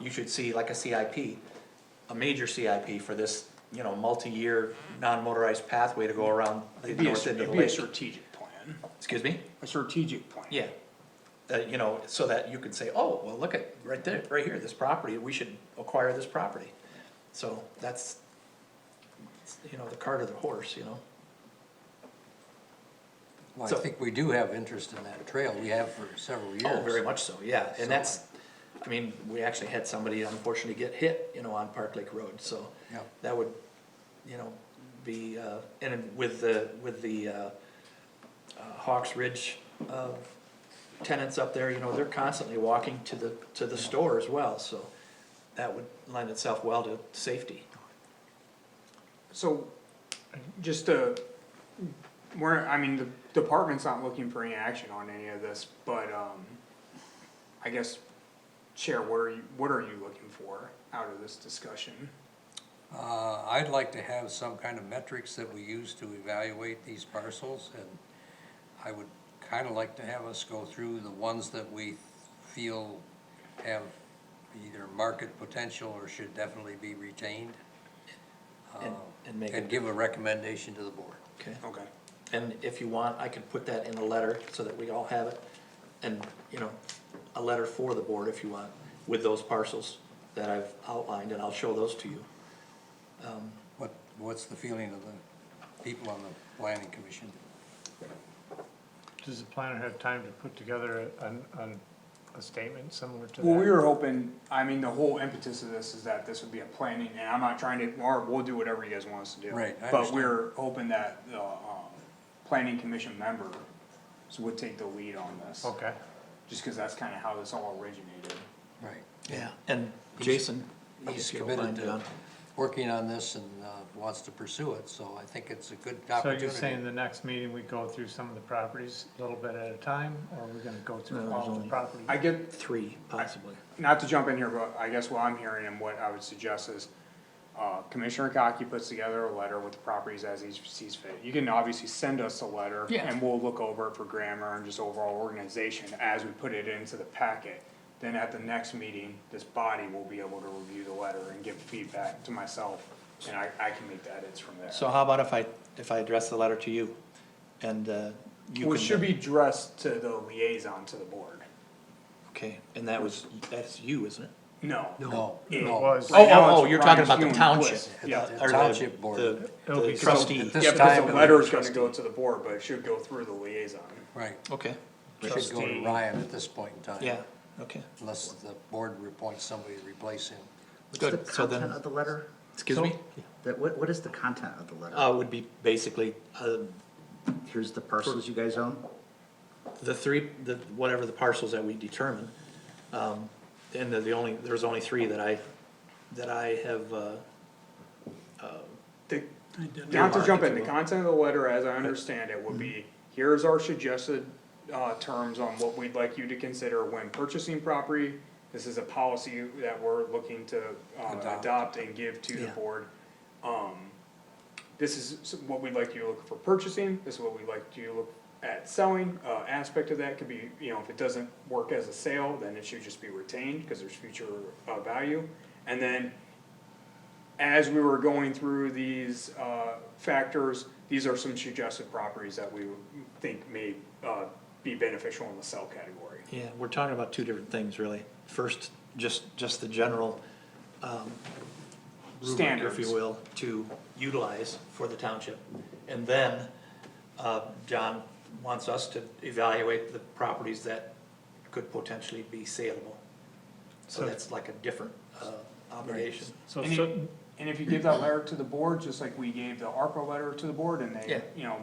you should see like a CIP, a major CIP for this, you know, multi-year non-motorized pathway to go around the It'd be a, north end of it'd the be a lake. strategic plan, Excuse me? a strategic plan. Yeah. That, you know, so that you can say, oh, well, look at, right there, right here, this property, we should acquire this property. So that's, you know, the cart or the horse, you know? Well, So- I think we do have interest in that trail, we have for several years. Oh, very much so, yeah, So- uh, and that's, I mean, we actually had somebody unfortunately get hit, you know, on Park Lake Road, so. Yep. That would, you know, be, uh, and with the, with the, uh, uh, Hawks Ridge, uh, tenants up there, you know, they're constantly walking to the, to the store as well, so. That would lend itself well to safety. So, just to, we're, I mean, the department's not looking for any action on any of this, but, um, I guess, Chair, what are you, what are you looking for out of this discussion? Uh, I'd like to have some kind of metrics that we use to evaluate these parcels, and I would kinda like to have us go through the ones that we feel have either market potential or should definitely be retained, And, and make Oh. and it, give a recommendation to the board. okay. Okay. And if you want, I can put that in a letter so that we all have it. And, you know, a letter for the board if you want, with those parcels that I've outlined, and I'll show those to you. What, what's the feeling of the people on the planning commission? Does the planner have time to put together an, an, a statement similar to that? Well, we were hoping, I mean, the whole impetus of this is that this would be a planning, and I'm not trying to, or we'll do whatever you guys want us to do. Right, I But understand. we're hoping that the, um, planning commission members would take the lead on this. Okay, Just cause that's kinda how this all originated. Right. Yeah. And Jason. He's if you don't mind, committed to John. working on this and uh, wants to pursue it, so I think it's a good so opportunity. you're saying the next meeting we go through some of the properties a little bit at a time, or we're gonna go No, through there's all of only- the properties? I get, Three, possibly. not to jump in here, but I guess what I'm hearing and what I would suggest is, uh, Commissioner Cockey puts together a letter with the properties as he sees fit. You can obviously send us a letter. Yeah. And we'll look over it for grammar and just overall organization as we put it into the packet. Then at the next meeting, this body will be able to review the letter and give feedback to myself, and I, I can make the edits from there. So how about if I, if I address the letter to you? And, uh, you Well, it can- should be addressed to the liaison to the board. Okay, and that was, that's you, isn't it? No. No, It no. Was, Right Oh, now, oh, it's you're talking about Ryan the Kuhn. township. Yeah. uh, The or township board. the- It'll The be- trustee. This Yeah, because time the it letter was is gonna go to the board, but it should go through the liaison. Right, Okay, it should go to Trustee. Ryan at this point in time. yeah, okay. Unless the board appoints somebody to replace him. What's the Good, so then- content of the letter? Excuse So- me? That, what, what is the content of the letter? Uh, would be basically, uh, Here's the parcels you guys own? the three, the, whatever the parcels that we determine, um, and the, the only, there's only three that I, that I have, uh, The- Not to Earmark, jump if in, you the will. content of the letter, as I understand it, would be, here's our suggested, uh, terms on what we'd like you to consider when purchasing property. This is a policy that we're looking to, uh, Adopt. adopt and give to the Yeah. board. Um, this is s- what we'd like you to look for purchasing, this is what we'd like you to look at selling, uh, aspect of that could be, you know, if it doesn't work as a sale, then it should just be retained, cause there's future, uh, value. And then as we were going through these uh, factors, these are some suggested properties that we think may uh, be beneficial in the sell category. yeah, we're talking about two different things, really. First, just, just the general, um, rubric, if Standards. you will, to utilize for the township. And then, uh, John wants us to evaluate the properties that could potentially be saleable. So So- that's like a different, uh, obligation. so, Any- so, And if you give that letter to the board, just like we gave the ARPA letter to the board and Yeah. they, you know,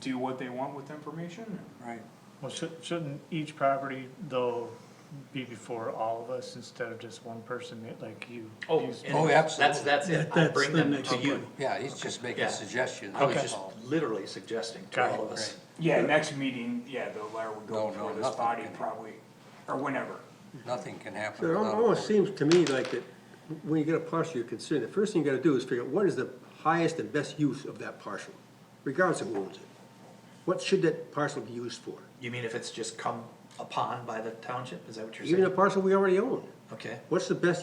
do what they want with the information. Right. well, should, shouldn't each property though be before all of us instead of just one person like you? Oh, you- and Oh, That's, absolutely. that's it, I bring them to you. Yeah, he's just Yeah. making suggestions, I was that's just all. literally suggesting to Got all it, of us. Yeah, next meeting, yeah, the letter would No, go no, before this nothing. body probably, or whenever. Nothing can happen So It without. a almost board. seems to me like that, when you get a parcel you're considering, the first thing you gotta do is figure out what is the highest and best use of that parcel, regardless of who owns it. What should that parcel be used for? You mean if it's just come upon by the township, is that what you're Even a saying? parcel we already own, Okay. what's the best